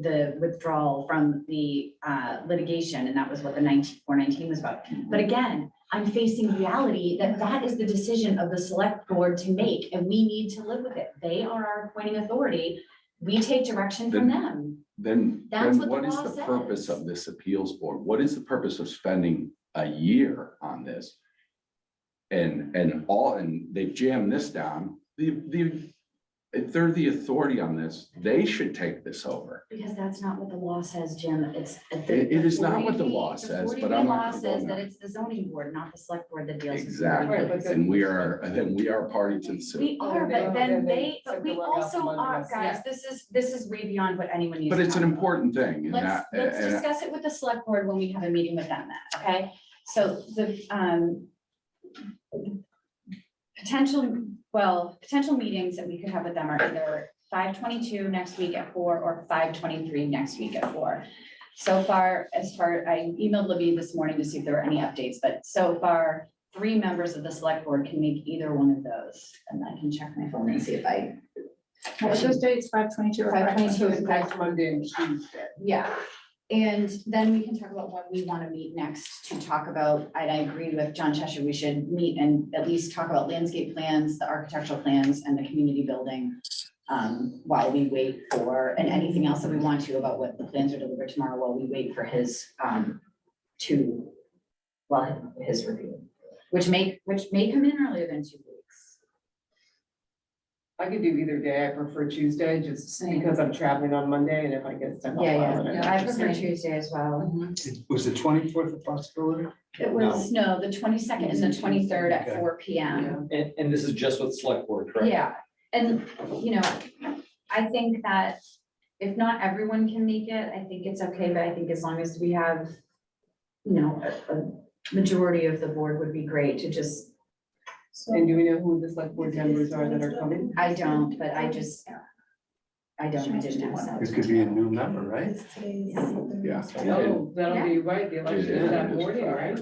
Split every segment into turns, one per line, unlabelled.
the withdrawal from the uh, litigation, and that was what the nineteen, four nineteen was about.
Mm-hmm.
But again, I'm facing reality that that is the decision of the select board to make, and we need to live with it. They are our appointing authority. We take direction from them.
Then,
That's
then
what
what
the
is
law
the purpose
says.
of this appeals board? What is the purpose of spending a year on this? And, and all, and they've jammed this down. The, the, if they're the authority on this, they should take this over.
Because that's not what the law says, Jim. It's.
It- it is not what the law says, but I'm not
law
gonna go
says that
there.
it's the zoning board, not the select board that deals. with
Exactly.
zoning.
Right, but
And we are, and then we are party to the suit.
We are,
they
but
don't,
then
then they
they, but
took
we
the rug out
also
from under
are,
us.
guys,
Yeah.
this is, this is way beyond what anyone needs.
But
to
it's an
know.
important thing and
Let's,
that,
let's
and
discuss it with the select board when we have a meeting with them then, okay? So the, um, potential, well, potential meetings that we could have with them are either five twenty-two next week at four or five twenty-three next week at four. So far, as far, I emailed Libby this morning to see if there were any updates, but so far, three members of the select board can make either one of those. And I can check my phone and see if I,
What's those dates, five twenty-two?
522 is
Next Monday and Tuesday.
Yeah, and then we can talk about when we want to meet next to talk about, and I agree with John Cheshire, we should meet and at least talk about landscape plans, the architectural plans and the community building. Um, while we wait for, and anything else that we want to about what the plans are delivered tomorrow while we wait for his, um, to, well, his review, which may, which may come in earlier than two weeks.
I could do either day. I prefer Tuesday just because I'm traveling on Monday and if I get stuck. on Monday, I'm
I
just
prefer
saying.
Tuesday as well.
Was the twenty-fourth a possibility?
It was, no, the twenty-second and the twenty-third at
Okay.
four P M.
Yeah.
And, and this is just with select board, correct?
Yeah, and, you know, I think that if not everyone can make it, I think it's okay, but I think as long as we have, you know, a, a majority of the board would be great to just,
And do we know who the select board members are that are coming?
I don't, but I just, I don't, I didn't ask that.
It could be a new member, right?
yeah. And-
Oh, that'll be right. The election is that morning, right?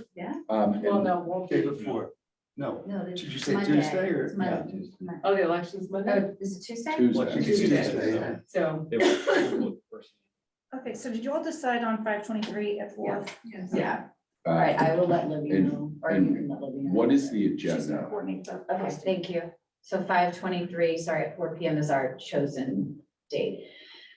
um, and-
Well, no, won't
Day
be.
before, no,
No,
did
this
you say
Monday.
Tuesday or?
It's Monday. Mon-
Oh, the election's Monday?
Oh, is it Tuesday?
Tuesday.
Tuesday.
Tuesday.
So,
They were-
Okay, so did you all decide on five twenty-three at four?
Yeah,
Uh,
all right, I will let Libby
And-
know, or you
and
can let Libby know.
What is the
She's gonna
agenda?
coordinate the-
Okay, thank you. So five twenty-three, sorry, at four P M is our chosen date.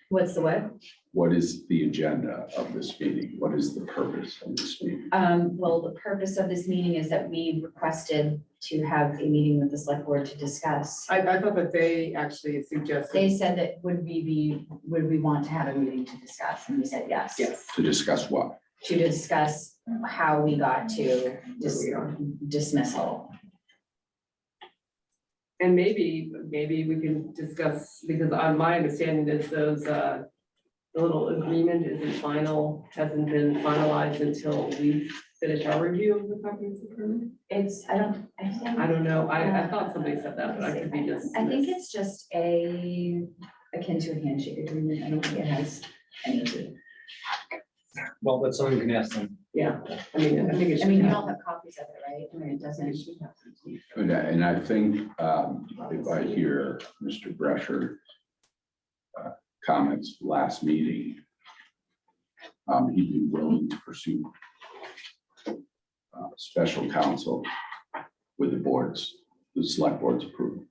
What's the what?
What is the agenda of this meeting? What is the purpose of this meeting?
Um, well, the purpose of this meeting is that we requested to have a meeting with the select board to discuss.
I, I thought that they actually suggested,
They said that would we be, would we want to have a meeting to discuss? And we said yes.
yes.
To discuss what?
To discuss how we got to dis-
Where we are.
dismissal.
And maybe, maybe we can discuss, because on my understanding is those, uh, the little agreement isn't final, hasn't been finalized until we finish our review of the comprehensive permit.
It's, I don't, I think.
I don't know, I, I thought somebody said that, but I could be just.
I think it's just a, akin to a handshake agreement, I don't think it has anything.
Well, that's something we can ask them.
Yeah, I mean, I think it
I
should.
mean, you
happen.
all have copies of it, right? I mean, it
It
doesn't.
should happen.
And I, and I think, um, if I hear Mr. Brescher uh, comments last meeting, um, he'd be willing to pursue uh, special counsel with the boards, the select board's approval.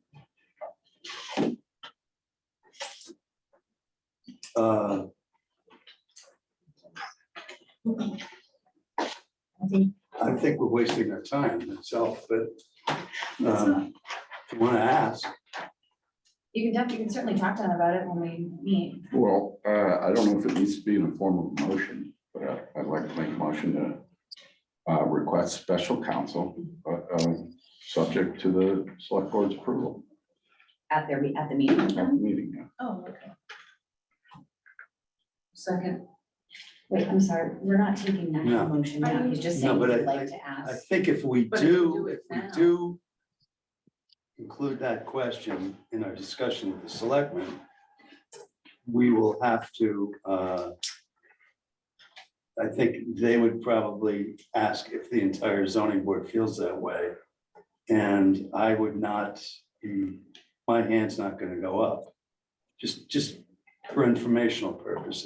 Uh, I think we're wasting our time itself, but, um, if you wanna ask,
You can, def- you can certainly talk to them about it when we meet.
Well, uh, I don't know if it needs to be in a form of motion, but I- I'd like to make a motion to uh, request special counsel, uh, um, subject to the select board's approval
At their, me- at the meeting.
at the meeting. yeah.
Oh, okay.
Second. Wait, I'm sorry, we're not taking that
No.
motion now, he's just saying
No,
he'd
but I-
like to
I
ask.
think if we
But if we do
do,
it
if we
now-
do include that question in our discussion with the selectmen, we will have to, uh, I think they would probably ask if the entire zoning board feels that way. And I would not, mm, be- my hand's not gonna go up, just, just for informational purposes.